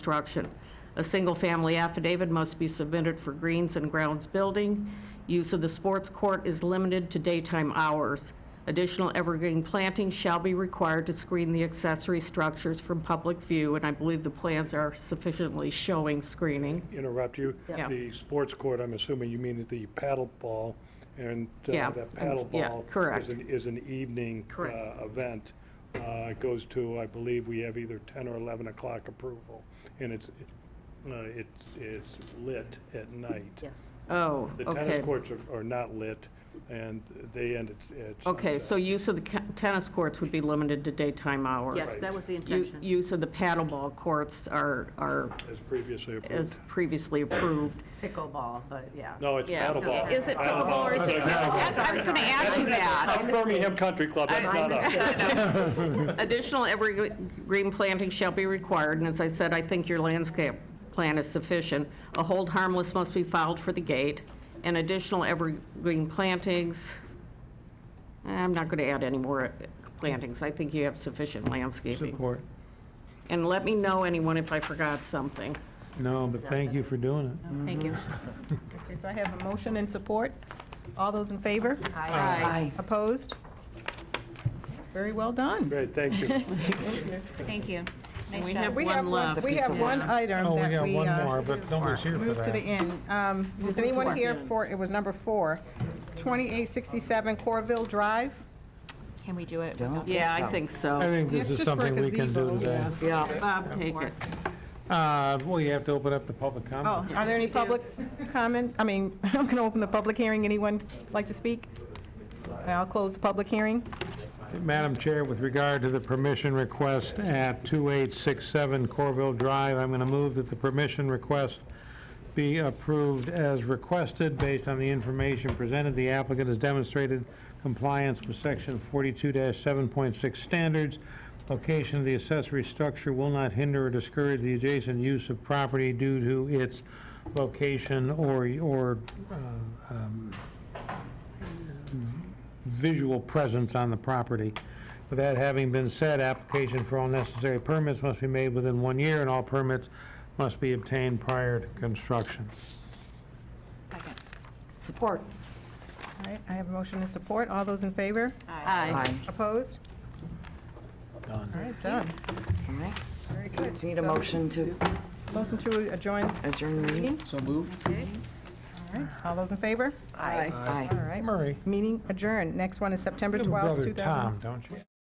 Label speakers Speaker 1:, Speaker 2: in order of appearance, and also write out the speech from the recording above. Speaker 1: construction. A single-family affidavit must be submitted for greens and grounds building. Use of the sports court is limited to daytime hours. Additional evergreen planting shall be required to screen the accessory structures from public view, and I believe the plans are sufficiently showing screening.
Speaker 2: interrupt you.
Speaker 1: Yeah.
Speaker 2: The sports court, I'm assuming you mean at the paddle ball, and uh,
Speaker 1: Yeah,
Speaker 2: that
Speaker 1: and-
Speaker 2: paddle
Speaker 1: yeah,
Speaker 2: ball
Speaker 1: correct.
Speaker 2: is an, is an evening
Speaker 1: Correct.
Speaker 2: uh, event. Uh, It goes to, I believe, we have either 10 or 11 o'clock approval, and it's, uh, it's, it's lit at night.
Speaker 3: Yes.
Speaker 1: Oh,
Speaker 2: The
Speaker 1: okay.
Speaker 2: tennis courts are- are not lit, and they end at at
Speaker 1: Okay, so
Speaker 2: sunset.
Speaker 1: use of the ca- tennis courts would be limited to daytime hours.
Speaker 3: Yes, that was the
Speaker 1: U-
Speaker 3: intention.
Speaker 1: Use of the paddleball courts are, are
Speaker 2: As previously approved.
Speaker 1: as previously approved.
Speaker 3: Pickleball, but yeah.
Speaker 2: No, it's
Speaker 1: Yeah.
Speaker 2: paddle ball.
Speaker 4: Is it
Speaker 2: Paddle
Speaker 4: pickleball or is
Speaker 2: It's
Speaker 4: it
Speaker 2: a paddle
Speaker 4: pickleball?
Speaker 2: ball.
Speaker 4: That's what I was going to ask you
Speaker 2: That's
Speaker 4: that.
Speaker 2: Birmingham Country Club, that's not us.
Speaker 1: Additional evergreen planting shall be required, and as I said, I think your landscape plan is sufficient. A hold harmless must be filed for the gate, and additional evergreen plantings, I'm not going to add any more plantings. I think you have sufficient landscaping.
Speaker 5: Support.
Speaker 1: And let me know, anyone, if I forgot something.
Speaker 5: No, but thank you for doing it.
Speaker 1: Thank you.
Speaker 6: Okay, so I have a motion and support. All those in favor?
Speaker 1: Aye.
Speaker 6: Opposed? Very well done.
Speaker 2: Great, thank you.
Speaker 4: Thank you. Nice
Speaker 1: We
Speaker 4: job.
Speaker 1: have
Speaker 6: We have
Speaker 1: one left.
Speaker 6: We have one item
Speaker 5: Oh, we
Speaker 6: that
Speaker 5: got
Speaker 6: we
Speaker 5: one
Speaker 6: uh,
Speaker 5: more, but nobody's here for
Speaker 6: moved to the
Speaker 5: that.
Speaker 6: end. Um, Is anyone here for, it was number four, 2867 Corville Drive?
Speaker 4: Can we do it? without-
Speaker 1: Yeah, I think
Speaker 5: I
Speaker 1: so.
Speaker 5: think this
Speaker 6: It's
Speaker 5: is
Speaker 6: just for a
Speaker 5: something we can do
Speaker 6: gazebo,
Speaker 5: today.
Speaker 1: Yeah. Bob, take it.
Speaker 5: Uh, well, you have to open up the public
Speaker 6: Oh,
Speaker 5: comment.
Speaker 6: are there any public comment? I mean, I'm going to open the public hearing. Anyone like to speak? I'll close the public hearing.
Speaker 5: Madam Chair, with regard to the permission request at 2867 Corville Drive, I'm going to move that the permission request be approved as requested based on the information presented. The applicant has demonstrated compliance with Section 42-7.6 standards. Location of the accessory structure will not hinder or discourage the adjacent use of property due to its location or, or uh, um, visual presence on the property. With that having been said, application for all necessary permits must be made within one year, and all permits must be obtained prior to construction.
Speaker 4: Second.
Speaker 7: Support.
Speaker 6: All right, I have a motion and support. All those in favor?
Speaker 7: Aye.
Speaker 6: Opposed? All
Speaker 5: Done.
Speaker 6: right, done.
Speaker 7: All right.
Speaker 6: Very good.
Speaker 7: Do you need a motion to
Speaker 6: Motion to adjourn
Speaker 7: adjourn the meeting?
Speaker 8: So moved.
Speaker 6: All right, all those in favor?
Speaker 7: Aye.
Speaker 6: All right,
Speaker 5: Murray,
Speaker 6: meeting adjourned. Next one is September
Speaker 5: you have a
Speaker 6: 12th,
Speaker 5: brother
Speaker 6: 2000.
Speaker 5: Tom, don't you?